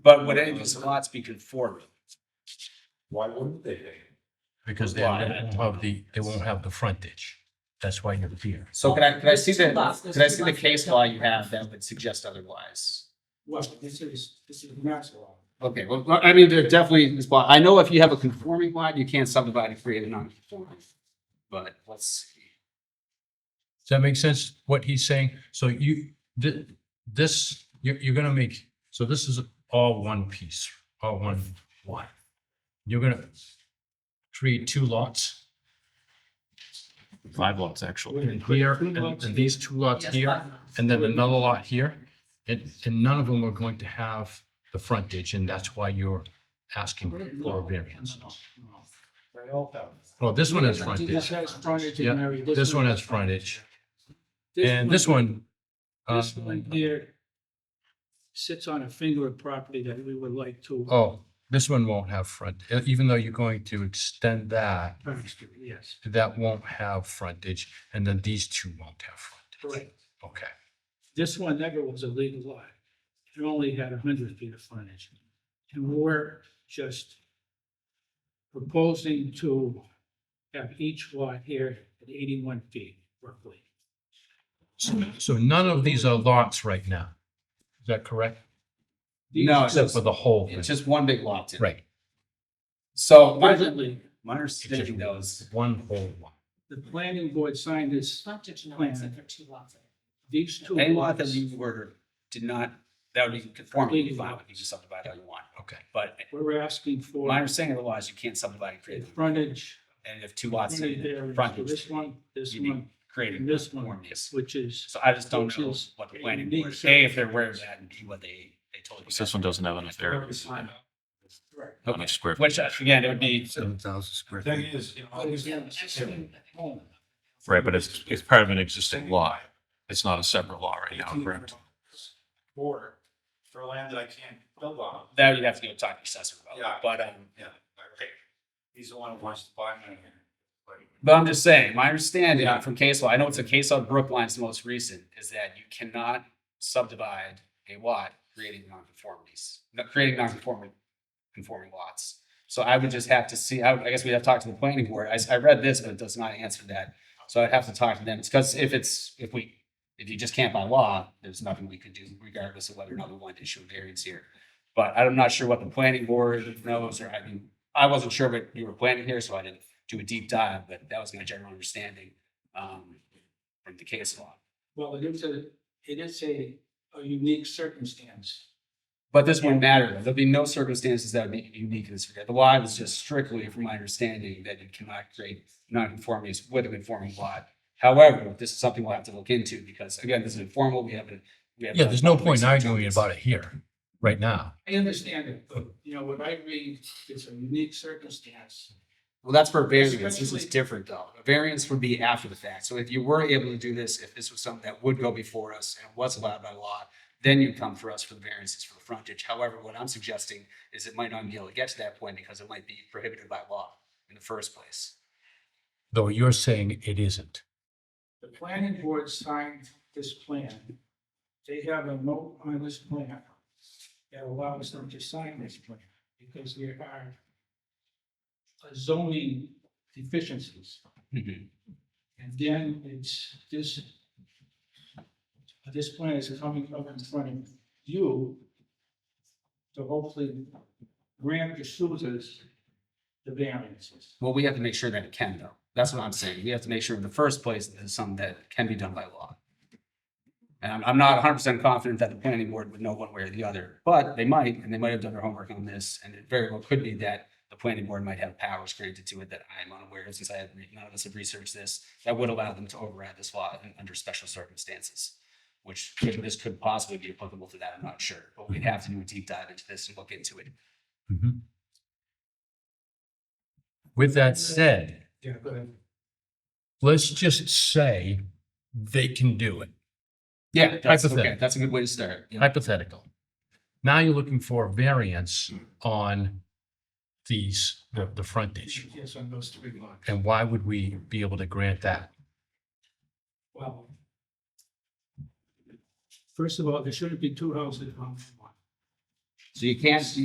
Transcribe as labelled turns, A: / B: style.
A: But would any of these lots be conforming?
B: Why wouldn't they?
C: because they won't have the, they won't have the frontage. That's why you're here.
D: So can I, can I see the,
E: There's two lots, there's
D: can I
E: two
D: see the
E: lots.
D: case law you have that would suggest otherwise?
F: Well, this is, this is max law.
D: Okay, well, I mean, there definitely is, I know if you have a conforming lot, you can't subdivide and create a non-conforming. But let's see.
C: Does that make sense, what he's saying? So you, thi- this, you're, you're gonna make, so this is all one piece, all one lot. You're gonna create two lots
G: Five lots, actually.
C: here, and and these two lots
E: Yes,
C: here,
E: five lots.
C: and then another lot here. And, and none of them are going to have the frontage, and that's why you're asking for a variance.
F: They all have.
C: Well, this one has
F: This
C: frontage,
F: has frontage
C: Yeah,
F: in area.
C: this one has frontage,
F: This
C: and this one. uh,
F: This one here sits on a finger of property that we would like to.
C: Oh, this one won't have front, e- even though you're going to extend that,
F: Parents do, Yes,
C: that won't have frontage, and then these two won't have frontage.
F: correct.
C: Okay,
F: This one never was a legal lot. It only had hundred feet of frontage. And we're just proposing to have each lot here at eighty-one feet roughly.
C: so, so none of these are lots right now. Is that correct?
D: No, it's
C: Except for
D: just,
C: the whole
D: it's
C: thing,
D: just one big lot. Tim.
C: right?
D: So my,
F: Presently,
D: my understanding though is,
C: One whole lot.
F: the planning board signed this,
E: Frontage no, except for two lots.
F: these two
D: any lot that
F: lots.
D: we were, did not, that would be conforming, you'd be fine, you can subdivide how you want.
C: Okay,
D: But
F: We're asking for.
D: my understanding of the law is you can't subdivide and
F: the
D: create,
F: Frontage.
D: and if two lots
F: frontage
D: in
F: there,
D: the
F: and
D: frontage.
F: This one, this
D: you'd be
F: one,
D: Creating
F: and this one,
D: conformities.
F: which is,
D: So I just don't
F: Which
D: know
F: is
D: what the
F: a
D: planning
F: unique
D: board, A, if
F: circumstance.
D: they're aware of that, and B, what they, they told you.
G: This one doesn't have enough areas on
F: right,
G: a square.
D: Which, uh, again, it would be,
C: seven thousand square
B: Thing is, in all these.
G: Right, but it's, it's part of an existing lot. It's not a separate lot right now, correct?
B: Border for land that I can't build on.
D: that you'd have to go talk to assessor
B: Yeah.
D: about, but, um,
B: Yeah. He's the one who wants to buy me here.
D: but I'm just saying, my understanding
B: Yeah.
D: from case law, I know it's a case law, Brookline's the most recent, is that you cannot subdivide a lot creating nonconformities, no- creating nonconforming, conforming lots. So I would just have to see, I, would- I guess we'd have to talk to the planning board. I, s- I read this, but it does not answer that. So I'd have to talk to them. It's because if it's, if we, if you just can't by law, there's nothing we could do regardless of whether or not we want to issue a variance here. But I'm not sure what the planning board knows, or I mean, I wasn't sure what you were planning here, so I didn't do a deep dive, but that was my general understanding, um, from the case law.
F: well, it is a, it is a, a unique circumstance.
D: But this wouldn't matter. There'll be no circumstances that would be unique in this regard. The law is just strictly, from my understanding, that you cannot create nonconformities with a conforming lot. However, this is something we'll have to look into because again, this is informal. We haven't. we haven't-
C: Yeah, there's no point in arguing about it here, right now.
F: I understand it, but, you know, what I read is a unique circumstance.
D: Well, that's for variance. This is different though. A variance would be after the fact. So if you were able to do this, if this was something that would go before us and was allowed by law, then you'd come for us for the variances for the frontage. However, what I'm suggesting is it might not be able to get to that point because it might be prohibited by law in the first place.
C: Though you're saying it isn't.
F: The planning board signed this plan. They have a note on this plan that allows them to sign this plan because there are zoning deficiencies. And then it's this, this plan is coming up in front of you to hopefully grant the suitors the variances.
D: Well, we have to make sure that it can though. That's what I'm saying. We have to make sure in the first place that it's something that can be done by law. And I'm, I'm not hundred percent confident that the planning board would know one way or the other, but they might, and they might have done their homework on this. And it very well could be that the planning board might have powers granted to it that I'm unaware of since I had, none of us have researched this. That would allow them to override this law in- under special circumstances, which could- this could possibly be applicable to that. I'm not sure, but we'd have to do a deep dive into this and look into it.
C: Mhm. With that said,
F: Yeah, go ahead.
C: let's just say they can do it,
D: Yeah, that's okay.
C: Hypothetical.
D: That's a good way to start. you know?
C: hypothetical. Now you're looking for a variance on these, the, the frontage.
F: Yes, on those three lots.
C: And why would we be able to grant that?
F: Well. First of all, there shouldn't be two houses on one. So you can't,